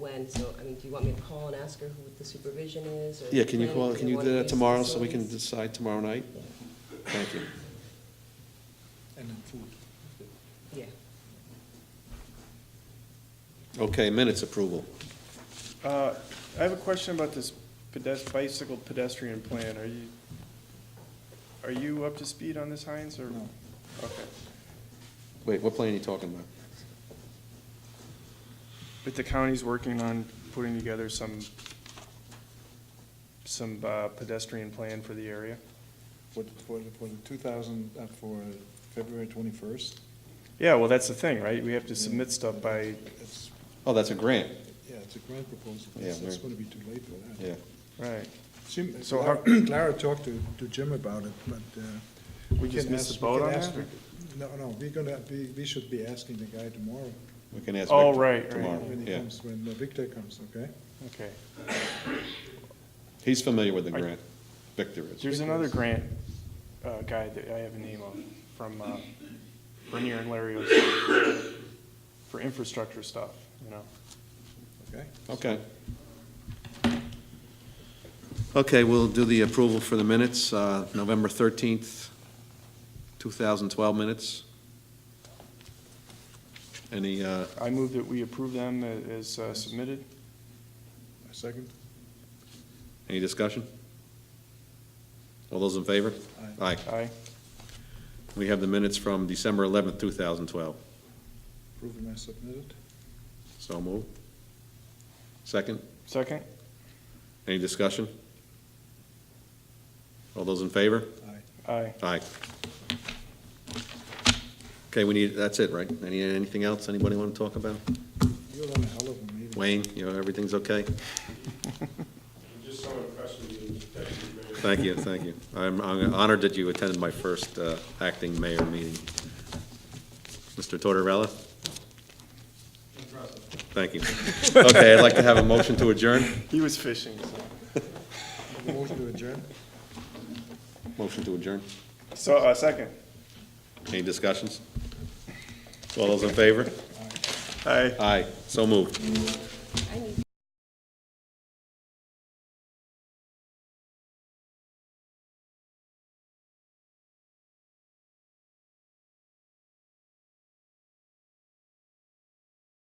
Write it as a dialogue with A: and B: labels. A: when, so, I mean, do you want me to call and ask her who the supervision is? or
B: Yeah, can you
A: the
B: call,
A: planning-
B: can
A: either
B: you
A: one
B: do
A: of
B: that
A: these
B: tomorrow, so we can
A: facilities?
B: decide tomorrow night? Thank you.
C: And then food.
A: Yeah,
B: Okay, minutes approval.
D: Uh, I have a question about this pedes- bicycle pedestrian plan. Are you, are you up to speed on this, Heinz, or?
C: No.
D: Okay.
B: Wait, what plan are you talking about?
D: But the county's working on putting together some, some uh, pedestrian plan for the area?
C: For, for, for the two thousand, uh, for February twenty-first.
D: Yeah, well, that's the thing, right? We have to submit stuff by,
C: It's,
B: Oh, that's a grant,
C: yeah, it's a grant proposal,
B: Yeah,
C: it's, it's
B: right.
C: gonna be too late for that.
B: yeah.
D: right.
C: Jim,
D: So how-
C: Clara talked to, to Jim about it, but, uh.
D: We just
C: can
D: missed the
C: ask- we
D: boat
C: can
D: on
C: ask-
D: that, or?
C: No, no, we're gonna, we, we should be asking the guy tomorrow,
B: We can ask
D: Oh,
B: Victor
D: right, right.
B: tomorrow,
C: when he
B: yeah.
C: comes, when Victor comes, okay?
D: Okay.
B: He's familiar with the
D: I-
B: grant, Victor is.
D: There's another grant uh, guy that I have a name of, from uh, Bernier and Larios for infrastructure stuff, you know?
C: Okay?
B: Okay. Okay, we'll do the approval for the minutes, uh, November 13th, 2012 minutes. Any, uh,
D: I move that we approve them a- as uh, submitted.
C: A second?
B: any discussion? All those in favor?
C: Aye.
B: Aye.
D: Aye.
B: We have the minutes from December 11th, 2012.
C: Approving as submitted?
B: So moved. Second,
D: Second?
B: any discussion? All those in favor?
C: Aye.
D: Aye.
B: Aye. Okay, we need, that's it, right? Any, anything else anybody want to talk about?
C: You're on a hell of a meeting.
B: Wayne, you know, everything's okay?
E: Just so impressed with you, that you made.
B: Thank you, thank you. I'm I'm honored that you attended my first uh, acting mayor meeting. Mr. Tortorella? Thank you. Okay, I'd like to have a motion to adjourn.
D: He was fishing, so.
C: Motion to adjourn?
B: Motion to adjourn.
D: So, uh, second?
B: Any discussions? All those in favor?
D: Aye.
B: Aye, so moved.